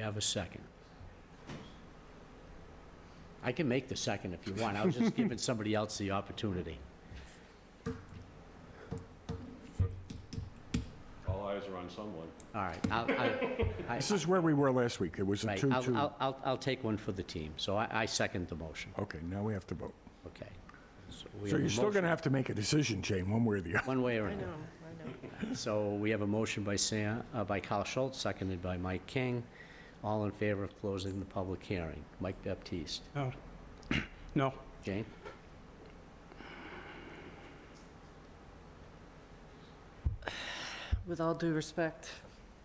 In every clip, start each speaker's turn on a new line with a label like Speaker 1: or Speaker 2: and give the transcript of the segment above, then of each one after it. Speaker 1: have a second? I can make the second if you want. I was just giving somebody else the opportunity.
Speaker 2: All eyes are on someone.
Speaker 1: All right, I'll, I- I-
Speaker 3: This is where we were last week. It was a
Speaker 1: right, I'll,
Speaker 3: 2-2.
Speaker 1: I'll- I'll, I'll take one for the team. So I, I second the motion,
Speaker 3: Okay, now we have to vote.
Speaker 1: okay? we
Speaker 3: So
Speaker 1: have a
Speaker 3: you're still going
Speaker 1: motion
Speaker 3: to have to make a decision, Jane, one way or the other.
Speaker 1: One way or
Speaker 4: I know,
Speaker 1: another.
Speaker 4: I know.
Speaker 1: So we have a motion by Sam, uh, by Carl Schultz, seconded by Mike King. All in favor of closing the public hearing. Mike Baptiste.
Speaker 5: No. No.
Speaker 1: Jane?
Speaker 4: With all due respect,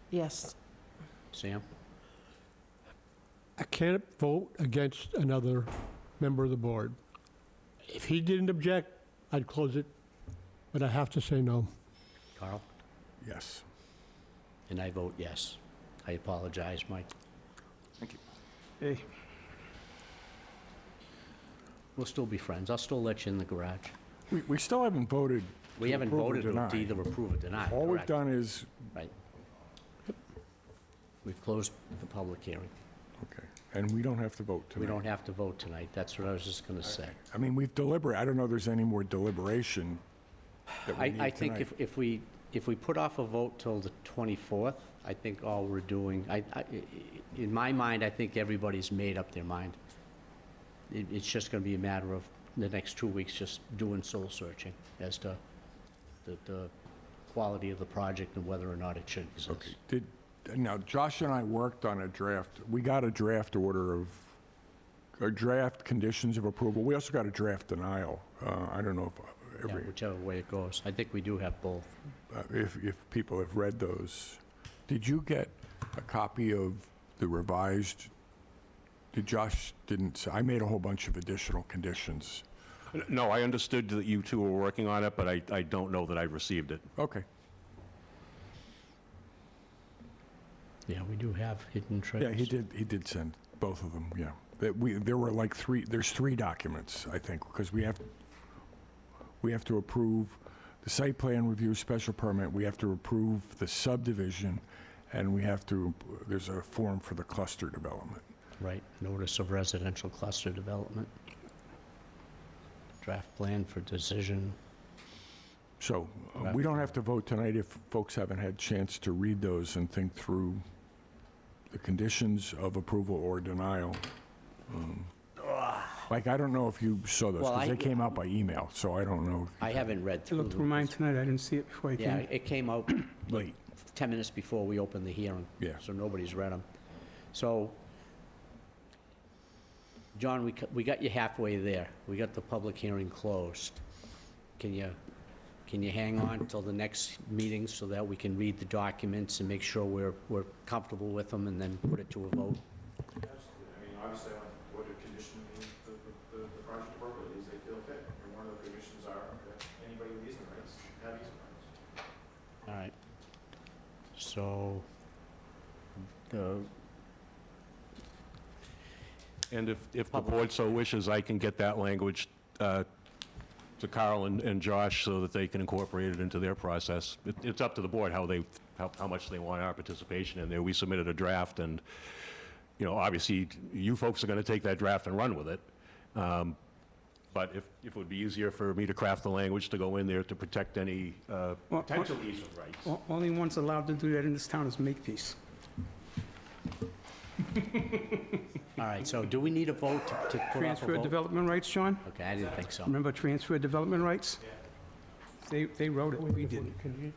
Speaker 4: yes.
Speaker 1: Sam?
Speaker 6: I can't vote against another member of the board. If he didn't object, I'd close it, but I have to say no.
Speaker 1: Carl?
Speaker 3: Yes.
Speaker 1: And I vote yes. I apologize, Mike.
Speaker 5: Hey,
Speaker 1: We'll still be friends. I'll still let you in the garage.
Speaker 3: We, we still haven't voted.
Speaker 1: We
Speaker 3: to
Speaker 1: haven't
Speaker 3: approve or
Speaker 1: voted to
Speaker 3: deny.
Speaker 1: either approve or deny,
Speaker 3: All we've
Speaker 1: correct?
Speaker 3: done is,
Speaker 1: Right. We've closed the public hearing.
Speaker 3: okay, and we don't have to vote
Speaker 1: We
Speaker 3: tonight.
Speaker 1: don't have to vote tonight. That's what I was just gonna say.
Speaker 3: I mean, we've deliberate, I don't know if there's any more deliberation that we
Speaker 1: I,
Speaker 3: need
Speaker 1: I think
Speaker 3: tonight.
Speaker 1: if, if we, if we put off a vote till the 24th, I think all we're doing, I, I- in my mind, I think everybody's made up their mind. It, it's just gonna be a matter of the next two weeks just doing soul searching as to the, the quality of the project and whether or not it should exist.
Speaker 3: Did, now, Josh and I worked on a draft, we got a draft order of, a draft conditions of approval. We also got a draft denial. Uh, I don't know if,
Speaker 1: Yeah,
Speaker 3: every-
Speaker 1: Whichever way it goes. I think we do have both.
Speaker 3: uh, if, if people have read those. Did you get a copy of the revised, did Josh, didn't, s- I made a whole bunch of additional conditions.
Speaker 2: No, I understood that you two were working on it, but I, I don't know that I received it.
Speaker 3: Okay.
Speaker 1: Yeah, we do have hidden treasures.
Speaker 3: Yeah, he did, he did send both of them, yeah. That we, there were like three, there's three documents, I think, because we have, we have to approve the site plan review special permit, we have to approve the subdivision, and we have to, there's a form for the cluster development.
Speaker 1: Right, notice of residential cluster development. Draft plan for decision.
Speaker 3: So uh, we don't have to vote tonight if folks haven't had chance to read those and think through the conditions of approval or denial. Um, Like, I don't know if you saw those,
Speaker 1: Well, I-
Speaker 3: because they came out by email, so I don't know. if
Speaker 1: I
Speaker 3: you-
Speaker 1: haven't read
Speaker 5: I
Speaker 1: through.
Speaker 5: looked through mine tonight, I didn't see it before I
Speaker 1: Yeah,
Speaker 5: came.
Speaker 1: it came out
Speaker 3: Late.
Speaker 1: 10 minutes before we opened the hearing.
Speaker 3: Yeah.
Speaker 1: So nobody's read them. So, John, we, c- we got you halfway there. We got the public hearing closed. Can you, can you hang on till the next meeting so that we can read the documents and make sure we're, we're comfortable with them and then put it to a vote?
Speaker 7: I mean, obviously, I want to order condition the, the, the project appropriately as they feel fit. And one of the conditions are that anybody with easement rights have easement rights.
Speaker 1: All right. So, the,
Speaker 2: And if, if the
Speaker 1: Public.
Speaker 2: board so wishes, I can get that language uh, to Carl and, and Josh so that they can incorporate it into their process. It- It's up to the board how they, how, how much they want our participation in there. We submitted a draft and, you know, obviously, you folks are going to take that draft and run with it. Um, But if, if it would be easier for me to craft the language to go in there to protect any uh,
Speaker 5: Well,
Speaker 2: potential easement rights.
Speaker 5: O- Only one's allowed to do that in this town is Makepeace.
Speaker 1: all right, so do we need a vote to to put off
Speaker 5: Transfer
Speaker 1: a vote?
Speaker 5: development rights, John?
Speaker 1: Okay, I didn't think so.
Speaker 5: Remember transfer development rights? They, they wrote it, we didn't.
Speaker 6: Continue,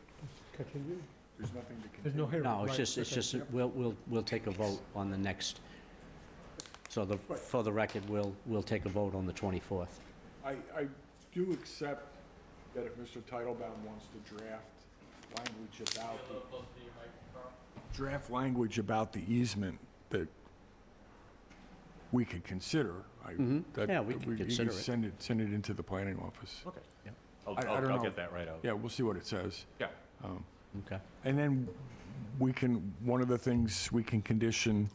Speaker 6: continue.
Speaker 3: There's nothing to
Speaker 6: There's no hearing.
Speaker 1: No, it's
Speaker 6: Right,
Speaker 1: just, it's
Speaker 6: okay,
Speaker 1: just,
Speaker 6: yep.
Speaker 1: we'll, we'll, we'll take a vote on the next, so the, for the record, we'll, we'll take a vote on the 24th.
Speaker 3: I, I do accept that if Mr. Titlebaum wants to draft language about the... Draft language about the easement that we could consider. I- that-
Speaker 1: Mm-hmm. Yeah, we
Speaker 3: that
Speaker 1: could consider
Speaker 3: You
Speaker 1: it.
Speaker 3: can send it, send it into the planning office.
Speaker 2: Okay.
Speaker 1: Yeah.
Speaker 2: I'll,
Speaker 3: I- I don't
Speaker 2: I'll I'll
Speaker 3: know.
Speaker 2: get that right out.
Speaker 3: Yeah, we'll see what it says.
Speaker 2: Yeah.
Speaker 1: Okay.
Speaker 3: And then we can, one of the things we can condition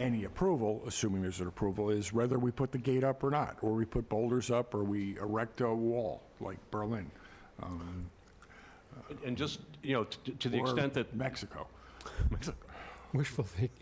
Speaker 3: any approval, assuming there's an approval, is whether we put the gate up or not, or we put boulders up, or we erect a wall like Berlin. um,
Speaker 2: And- And just, you know, t- to the
Speaker 3: or
Speaker 2: extent that
Speaker 3: Mexico.
Speaker 6: Wishful thinking.